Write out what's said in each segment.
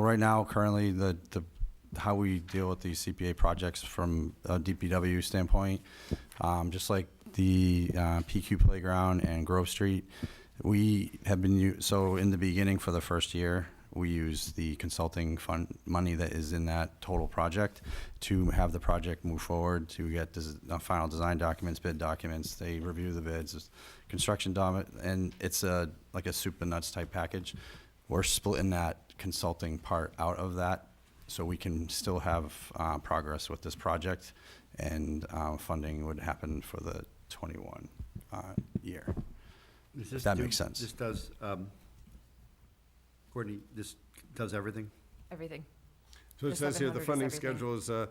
right now, currently, the, the, how we deal with these CPA projects from a DPW standpoint, um, just like the, uh, PQ Playground and Grove Street, we have been, u- so in the beginning for the first year, we use the consulting fund money that is in that total project to have the project move forward, to get des- uh, final design documents, bid documents. They review the bids, construction document, and it's a, like a soup and nuts type package. We're splitting that consulting part out of that so we can still have uh, progress with this project and uh, funding would happen for the 21 uh, year. Does this That do- makes sense. This does, um, Courtney, this does everything? Everything. So it The says here, the 700 is funding everything. schedule is uh,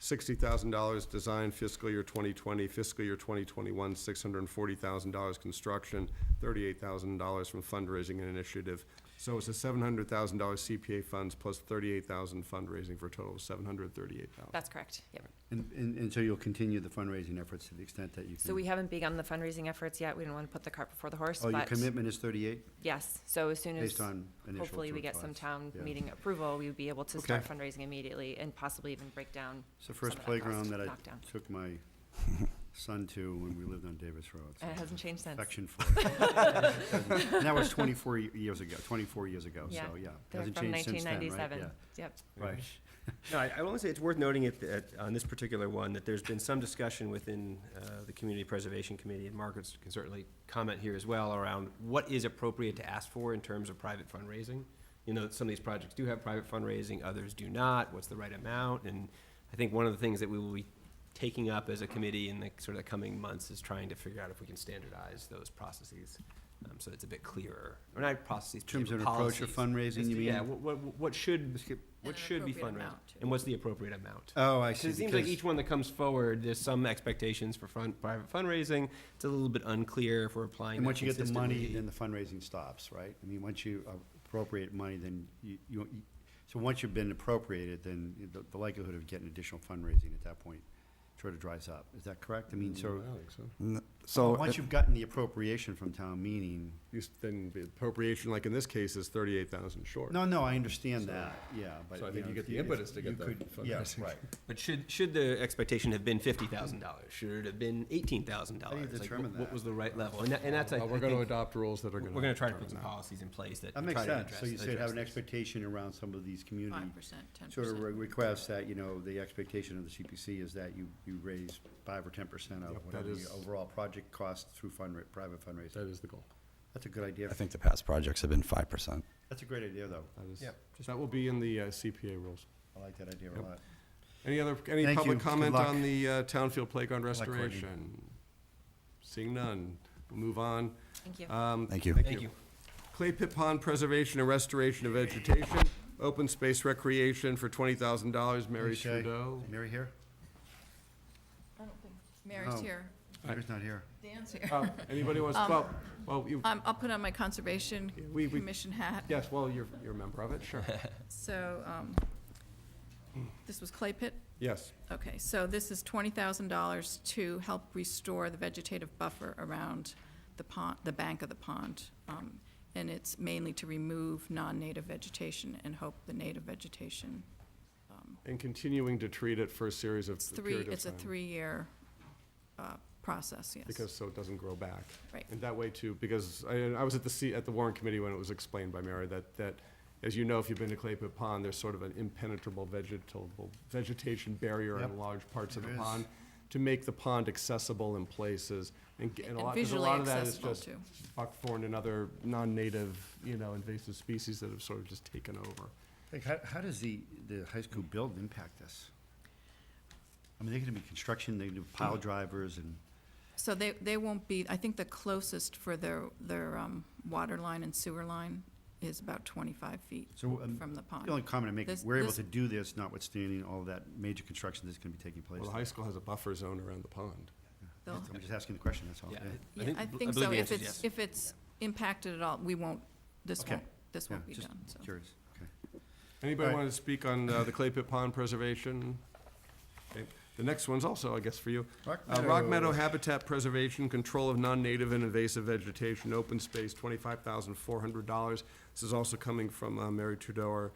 $60,000 design fiscal year 2020, fiscal year 2021, $640,000 construction, $38,000 from fundraising and initiative. So it's a $700,000 CPA funds plus $38,000 fundraising for a total of $738,000. That's correct. Yep. And, and, and so you'll continue the fundraising efforts to the extent that you can? So we haven't begun the fundraising efforts yet. We didn't want to put the cart before the horse, Oh, your but commitment is thirty-eight, yes. So as soon as based on initial. hopefully we get some thoughts. town yeah. meeting approval, we would be able to Okay. start fundraising immediately and possibly even break down. It's the first some of that cost playground that I knocked down. took my son to when we lived on Davis Road. so And it hasn't changed since. Affection for it. And that was twenty-four y- years ago, twenty-four years ago, so, Yeah. yeah. They're Hasn't from changed since then, right? 1997. Yep. Yeah, Right. No, I, I want to say it's worth noting it, that on this particular one, that there's been some discussion within, uh, the Community Preservation Committee, and Margaret can certainly comment here as well, around what is appropriate to ask for in terms of private fundraising. You know, some of these projects do have private fundraising, others do not, what's the right amount? And I think one of the things that we will be taking up as a committee in the sort of the coming months is trying to figure out if we can standardize those processes, um, so it's a bit clearer, or not processes, In terms of but an approach of policies. fundraising, Just- you mean? Yeah, what, what, what should, what an should be appropriate fundraising? amount, too. And what's the appropriate amount? Oh, I Uh, 'Cause see. it seems like because- each one that comes forward, there's some expectations for fun, private fundraising. It's a little bit unclear if we're applying And that once you get the money, consistently. then the fundraising stops, right? I mean, once you appropriate money, then you, you, you- so once you've been appropriated, then the- the likelihood of getting additional fundraising at that point sort of dries up. Is that correct? I mean, so, I think so. N- So, once you've gotten the appropriation from town meeting, You s- Then the appropriation, like in this case, is 38,000 short. no, no, I understand So- that, yeah, but. So I you think know, you get if the if impetus to you get the could- yeah, fundraising. right. But should, should the expectation have been fifty thousand dollars? Should it have been eighteen thousand dollars? determine What that? Uh, was the right level? And that, and that's, I I Well, think. We're going to adopt rules that are going to. We're gonna try to put some policies in place that. That makes try to sense. So address- you should have an address this. expectation around some of these community Five percent, ten sort of re- percent. requests that, you know, the expectation of the CPC is that you, you raise five or ten percent of Yep, that whatever the is- overall project costs through fund, private fundraising. That is the goal. That's a good idea. I think the past projects have been 5%. That's a great idea, though. That is, Yep. that will be in the uh, CPA rules. I like that idea a Yep. lot. Any other, any Thank you. public Good comment luck. on the uh, Townfield Playground luck, Courtney. restoration? Seeing none, we'll move on. Thank you. Um, Thank you. Thank you. Clay Pit Pond Preservation and Restoration of Vegetation, Open Space Recreation for twenty thousand dollars, Mary Shay. Trudeau. Mary here? Mary's No. here, Mary's not here. Dan's here. Oh, Anybody wants, Um, well, well, you, Um, I'll put on my conservation We- we- commission hat. yes, well, you're, you're a member of it, sure. So, um, this was clay pit? Yes, Okay, so this is twenty thousand dollars to help restore the vegetative buffer around the pond, the bank of the pond. Um, and it's mainly to remove non-native vegetation and hope the native vegetation. and continuing to treat it for a series of It's three, period of it's a time. three-year, uh, process, yes. Because, so it doesn't grow back. Right. And that way too, because I, I was at the, C- at the Warren Committee when it was explained by Mary that, that, as you know, if you've been to Clay Pit Pond, there's sort of an impenetrable vegetable, vegetation barrier Yep. in large parts of the There is. pond, to make the pond accessible in places, and, g- and a And lot, 'cause a visually lot of that is accessible, just too. buckthorn and other non-native, you know, invasive species that have sort of just taken over. Like, how, how does the, the high school build impact this? I mean, they're gonna be construction, they do pile drivers and, So they, they won't be, I think the closest for their, their um, water line and sewer line is about 25 feet so, um, from the the only pond. comment I make, This- we're able this- to do this notwithstanding all that major construction that's gonna be taking place. Well, the high school has a buffer zone around the pond. They'll- I'm just asking the question, that's all. Yeah. I Yeah, think- I I think believe so. the If answer is it's, yes. if it's impacted at all, we won't, this Okay. won't, this Yeah, won't be just done, so. Curious, okay. Anybody Right. want to speak on uh, the Clay Pit Pond preservation? Okay. The next one's also, I guess, for you. Rock Uh, Rock Meadow. Meadow Habitat Preservation, Control of Non-Native and Invasive Vegetation, Open Space, twenty-five thousand four hundred dollars. This is also coming from uh, Mary Trudeau, our